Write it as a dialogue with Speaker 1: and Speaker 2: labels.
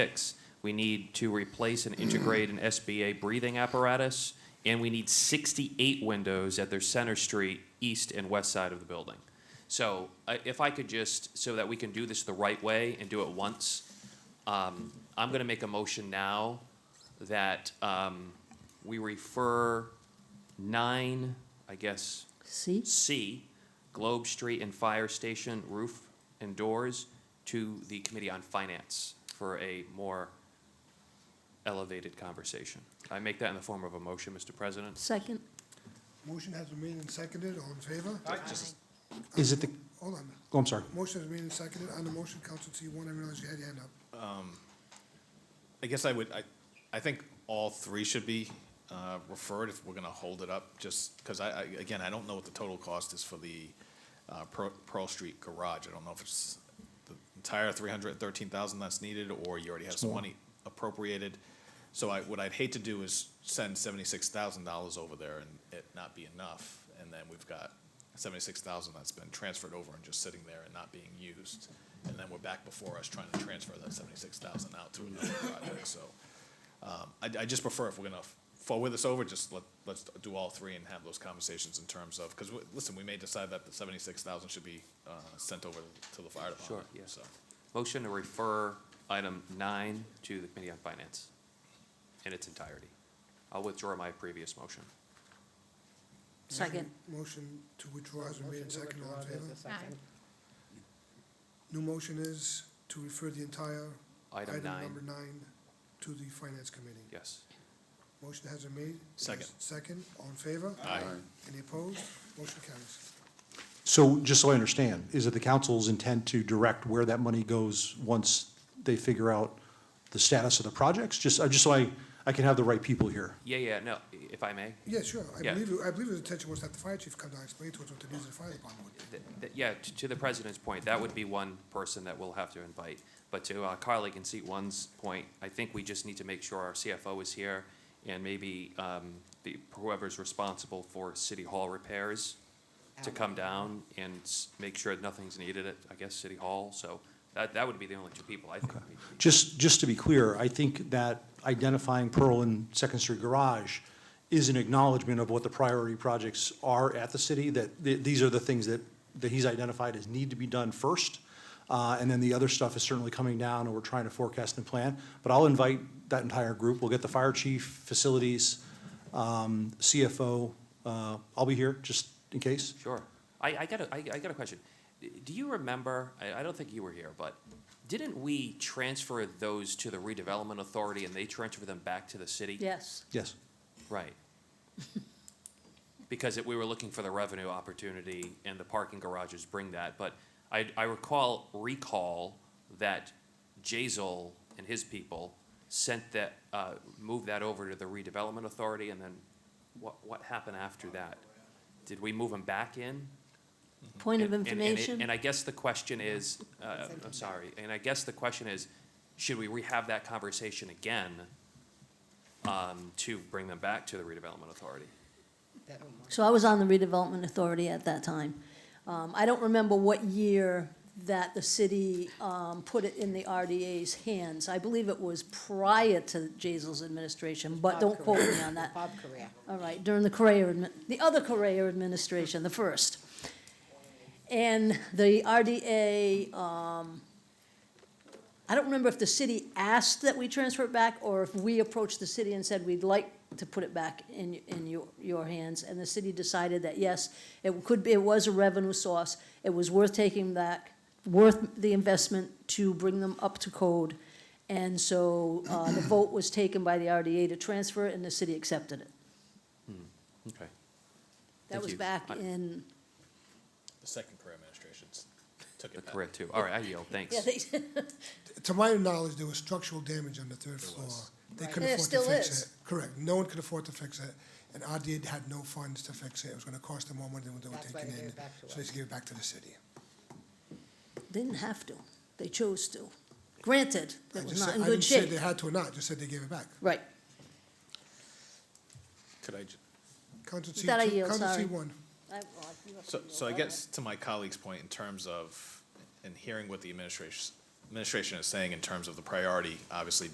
Speaker 1: six, we need to replace and integrate an SBA breathing apparatus, and we need 68 windows at their Center Street, east and west side of the building. So I- if I could just, so that we can do this the right way and do it once, um, I'm going to make a motion now that um, we refer nine, I guess,
Speaker 2: See?
Speaker 1: C, Globe Street and Fire Station roof and doors to the Committee on Finance for a more elevated conversation. I make that in the form of a motion, Mr. President.
Speaker 2: Second?
Speaker 3: Motion has been made and seconded, all in favor?
Speaker 1: Just-
Speaker 4: Is it the,
Speaker 3: Hold on,
Speaker 4: oh, I'm sorry.
Speaker 3: motion has been made and seconded, on the motion, Council C one, I realize you had your hand up.
Speaker 5: I guess I would, I, I think all three should be uh, referred if we're going to hold it up, just because I, I- again, I don't know what the total cost is for the uh, Pearl Pearl Street garage. I don't know if it's the entire 313,000 that's needed, or you already have some money appropriated. So I, what I'd hate to do is send $76,000 over there and it not be enough, and then we've got 76,000 that's been transferred over and just sitting there and not being used. And then we're back before us trying to transfer that 76,000 out to another project, so. um, I, I just prefer if we're gonna forward this over, just let, let's do all three and have those conversations in terms of, because, listen, we may decide that the 76,000 should be uh, sent over to the fire department.
Speaker 1: Sure, yeah.
Speaker 5: so.
Speaker 1: Motion to refer item nine to the Committee on Finance in its entirety. I'll withdraw my previous motion.
Speaker 2: Second.
Speaker 1: Mm-hmm.
Speaker 3: Motion to withdraw has been made and seconded, all in favor?
Speaker 6: Aye.
Speaker 3: New motion is to refer the entire
Speaker 1: Item
Speaker 3: item number
Speaker 1: nine,
Speaker 3: nine to the Finance Committee.
Speaker 1: yes.
Speaker 3: Motion has been made.
Speaker 5: Second.
Speaker 3: Second, all in favor?
Speaker 5: Aye.
Speaker 3: Any opposed? Motion carries.
Speaker 4: So just so I understand, is it the council's intent to direct where that money goes once they figure out the status of the projects? Just, I just so I, I can have the right people here.
Speaker 1: Yeah, yeah, no, if I may,
Speaker 3: Yeah, sure, I
Speaker 1: Yeah.
Speaker 3: believe, I believe the intention was that the fire chief come down and explain to us what the needs of the fire department would be.
Speaker 1: Th- th- Yeah, t- to the president's point, that would be one person that we'll have to invite. But to our colleague in seat one's point, I think we just need to make sure our CFO is here and maybe um, the- whoever's responsible for city hall repairs to come down and s- make sure nothing's needed at, I guess, city hall. So that, that would be the only two people I think. we-
Speaker 4: Just, just to be clear, I think that identifying Pearl and Second Street Garage is an acknowledgement of what the priority projects are at the city, that th- these are the things that, that he's identified as need to be done first. Uh, And then the other stuff is certainly coming down, and we're trying to forecast and plan. But I'll invite that entire group. We'll get the fire chief, facilities, um, CFO. Uh, I'll be here, just in case.
Speaker 1: Sure. I, I got a, I, I got a question. D- Do you remember, I, I don't think you were here, but didn't we transfer those to the redevelopment authority and they transfer them back to the city?
Speaker 2: Yes.
Speaker 4: Yes.
Speaker 1: Right. Because it, we were looking for the revenue opportunity and the parking garages bring that, but I, I recall, recall that Jazel and his people sent that, uh, moved that over to the redevelopment authority and then what, what happened after that? Did we move them back in?
Speaker 2: Point of
Speaker 1: And- and- and it-
Speaker 2: information?
Speaker 1: And I guess the question is, uh, I'm sorry, and I guess the question is, should we rehave that conversation again um, to bring them back to the redevelopment authority?
Speaker 2: So I was on the redevelopment authority at that time. Um, I don't remember what year that the city, um, put it in the RDA's hands. I believe it was prior to Jazel's administration, but don't quote me on that.
Speaker 6: Bob Correa.
Speaker 2: All right, during the Correa, admi- the other Correa administration, the first. And the RDA, um, I don't remember if the city asked that we transfer it back or if we approached the city and said, we'd like to put it back in, in your, your hands. And the city decided that, yes, it could be, it was a revenue source. It was worth taking back, worth the investment to bring them up to code. And so, uh, the vote was taken by the RDA to transfer it and the city accepted it.
Speaker 1: Okay.
Speaker 2: That
Speaker 1: Thank
Speaker 2: was
Speaker 1: you.
Speaker 2: back
Speaker 1: I-
Speaker 2: in,
Speaker 5: The second career administration took
Speaker 1: The
Speaker 5: it back.
Speaker 1: Correct, too. All right, I yield, thanks.
Speaker 2: yeah, they,
Speaker 3: To my knowledge, there was structural damage on the third floor. They couldn't
Speaker 2: There
Speaker 3: afford to
Speaker 2: still
Speaker 3: fix
Speaker 2: is.
Speaker 3: it. Correct, no one could afford to fix it, and RDA had no funds to fix it, it was gonna cost them more money than what they were
Speaker 6: That's why
Speaker 3: taking
Speaker 6: they gave
Speaker 3: in.
Speaker 6: it back to
Speaker 3: So they just gave it back to the city.
Speaker 2: didn't have to, they chose to. Granted,
Speaker 3: I
Speaker 2: that was
Speaker 3: just
Speaker 2: not
Speaker 3: said-
Speaker 2: in good
Speaker 3: I didn't say
Speaker 2: shape.
Speaker 3: they had to or not, just said they gave it back.
Speaker 2: Right,
Speaker 5: Could I, ju-
Speaker 3: Council C two,
Speaker 2: That I yield,
Speaker 3: Council C
Speaker 2: sorry.
Speaker 3: one.
Speaker 5: So, so I guess to my colleague's point, in terms of, in hearing what the administration, administration is saying in terms of the priority, obviously